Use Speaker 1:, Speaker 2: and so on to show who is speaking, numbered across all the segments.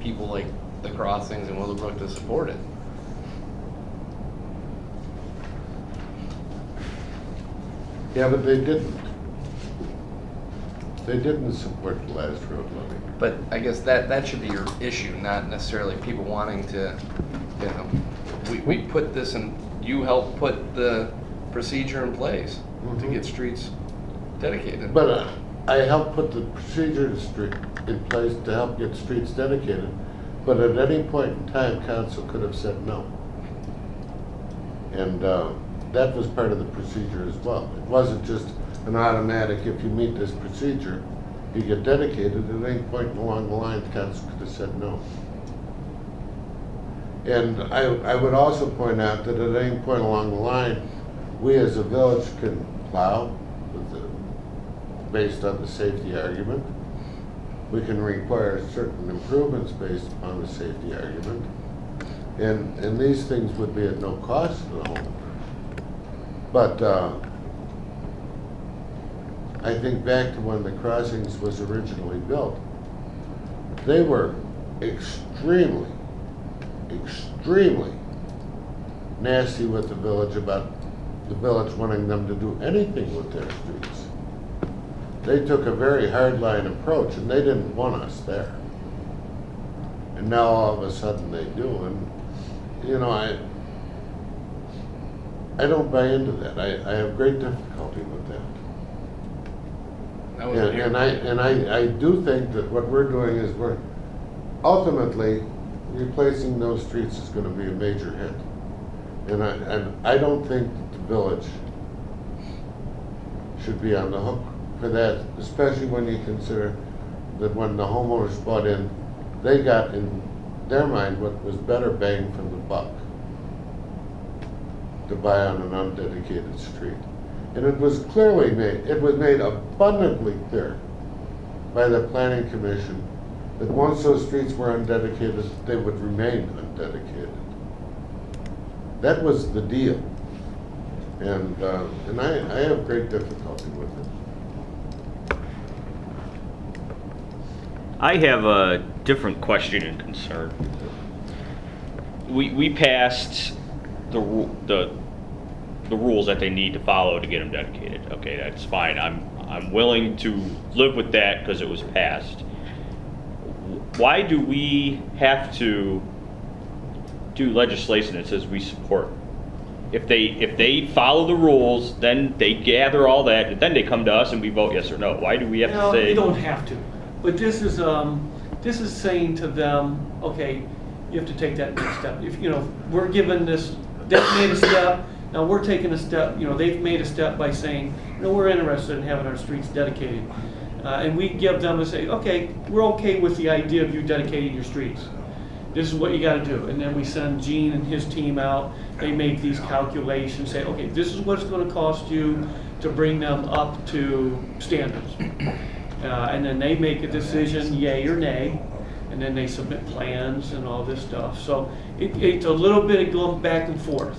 Speaker 1: people like the Crossings and Willowbrook to support it.
Speaker 2: Yeah, but they didn't. They didn't support the last road levy.
Speaker 1: But I guess that, that should be your issue, not necessarily people wanting to, you know, we, we put this in, you helped put the procedure in place to
Speaker 2: Mhm.
Speaker 1: get streets dedicated.
Speaker 2: But uh, I helped put the procedures stre- in place to help get streets dedicated, but at any point in time, council could have said no. And uh, that was part of the procedure as well. It wasn't just an automatic, if you meet this procedure, you get dedicated. At any point along the line, council could have said no. And I, I would also point out that at any point along the line, we as a village can plow with the based on the safety argument. We can require certain improvements based upon the safety argument. And, and these things would be at no cost to the homeowner. But, uh, I think back to when the crossings was originally built. They were extremely, extremely nasty with the village about the village wanting them to do anything with their streets they took a very hardline approach and they didn't want us there. And now all of a sudden they do, and, you know, I, I don't buy into that. I, I have great difficulty with that.
Speaker 1: I wasn't
Speaker 2: And
Speaker 1: here.
Speaker 2: and I, and I, I do think that what we're doing is we're, ultimately, replacing those streets is gonna be a major hit. And I, and I don't think that the village should be on the hook for that, especially when you consider that when the homeowners bought in, they got in their mind what was better bang for the buck to buy on an undedicated street. And it was clearly made, it was made abundantly clear by the planning commission that once those streets were undedicated, they would remain undedicated. That was the deal. And, uh, and I, I have great difficulty with it.
Speaker 3: I have a different question and concern. We, we passed the, ru- the, the rules that they need to follow to get them dedicated. Okay, that's fine. I'm, I'm willing to live with that because it was passed. Why do we have to do legislation that says we support? If they, if they follow the rules, then they gather all that, and then they come to us and we vote yes or no. Why do we have to
Speaker 4: No,
Speaker 3: say?
Speaker 4: you don't have to. But this is, um, this is saying to them, okay, you have to take that next step. If, you know, we're given this, they've made a step, now we're taking a step, you know, they've made a step by saying, no, we're interested in having our streets dedicated. Uh, and we give them and say, okay, we're okay with the idea of you dedicating your streets this is what you gotta do. And then we send Gene and his team out, they make these calculations, say, okay, this is what it's gonna cost you to bring them up to standards. Uh, and then they make a decision, yay or nay, and then they submit plans and all this stuff. So it, it's a little bit of going back and forth.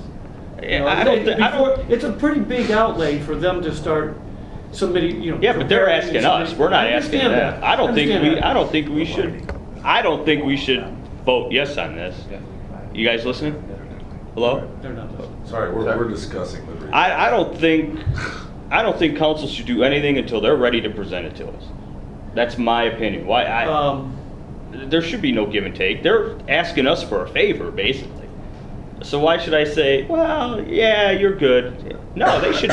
Speaker 4: You
Speaker 3: Yeah,
Speaker 4: know,
Speaker 3: I don't thi- I
Speaker 4: before-
Speaker 3: don't-
Speaker 4: It's a pretty big outlay for them to start submitting, you know.
Speaker 3: Yeah, but they're asking
Speaker 4: preparing and
Speaker 3: us,
Speaker 4: submitting-
Speaker 3: we're not
Speaker 4: I
Speaker 3: asking
Speaker 4: understand
Speaker 3: them.
Speaker 4: that.
Speaker 3: I don't think
Speaker 4: understand
Speaker 3: we,
Speaker 4: that.
Speaker 3: I don't think we should, I don't think we should vote yes on this. You guys listening? Hello?
Speaker 4: They're not listening.
Speaker 5: Sorry, we're, we're discussing the. re-
Speaker 3: I, I don't think, I don't think council should do anything until they're ready to present it to us. That's my opinion. Why, I,
Speaker 4: Um,
Speaker 3: there should be no give and take. They're asking us for a favor, basically. So why should I say, well, yeah, you're good? No, they should,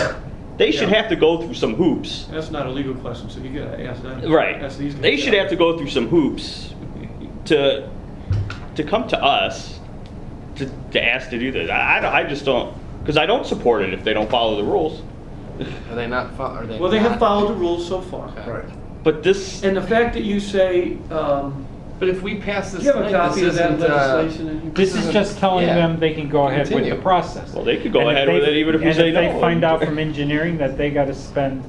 Speaker 3: they should
Speaker 4: Yeah.
Speaker 3: have to go through some hoops.
Speaker 4: That's not a legal question, so you gotta ask that.
Speaker 3: Right.
Speaker 4: Ask these guys.
Speaker 3: They should have to go through some hoops to to come to us to, to ask to do this. I, I, don't- I just don't because I don't support it if they don't follow the rules.
Speaker 1: Are they not, fol- are they?
Speaker 4: Well, they have
Speaker 1: not-
Speaker 4: followed the rules so far.
Speaker 1: Okay.
Speaker 3: But this
Speaker 4: And the fact that you say, um,
Speaker 1: But if we pass this
Speaker 4: do you have a
Speaker 1: tonight,
Speaker 4: copy
Speaker 1: this
Speaker 4: of that
Speaker 1: isn't, uh,
Speaker 4: legislation? in here?
Speaker 6: This is just telling
Speaker 1: Yeah.
Speaker 6: them they can go ahead with the
Speaker 1: Continue.
Speaker 6: process.
Speaker 3: Well, they could go
Speaker 6: And if
Speaker 3: ahead with
Speaker 6: they-
Speaker 3: it even if we say
Speaker 6: And if
Speaker 3: no.
Speaker 6: they find out from engineering that they gotta spend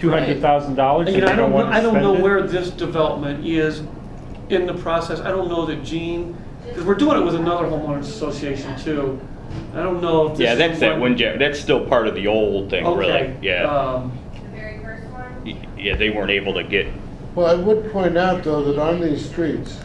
Speaker 6: two hundred thousand dollars
Speaker 4: You
Speaker 6: and
Speaker 4: know, I
Speaker 6: they
Speaker 4: don't,
Speaker 6: don't
Speaker 4: know-
Speaker 6: wanna
Speaker 4: I
Speaker 6: spend it.
Speaker 4: don't know where this development is in the process. I don't know that Gene, because we're doing it with another homeowners association too. I don't know if this.
Speaker 3: yeah,
Speaker 4: is
Speaker 3: that's that
Speaker 4: one-
Speaker 3: windjammer. That's still part of the old thing,
Speaker 4: Okay.
Speaker 3: really. Yeah,
Speaker 4: um,
Speaker 7: The very first one?
Speaker 3: Y- yeah, they weren't able to get.
Speaker 2: Well, I would point out though that on these streets,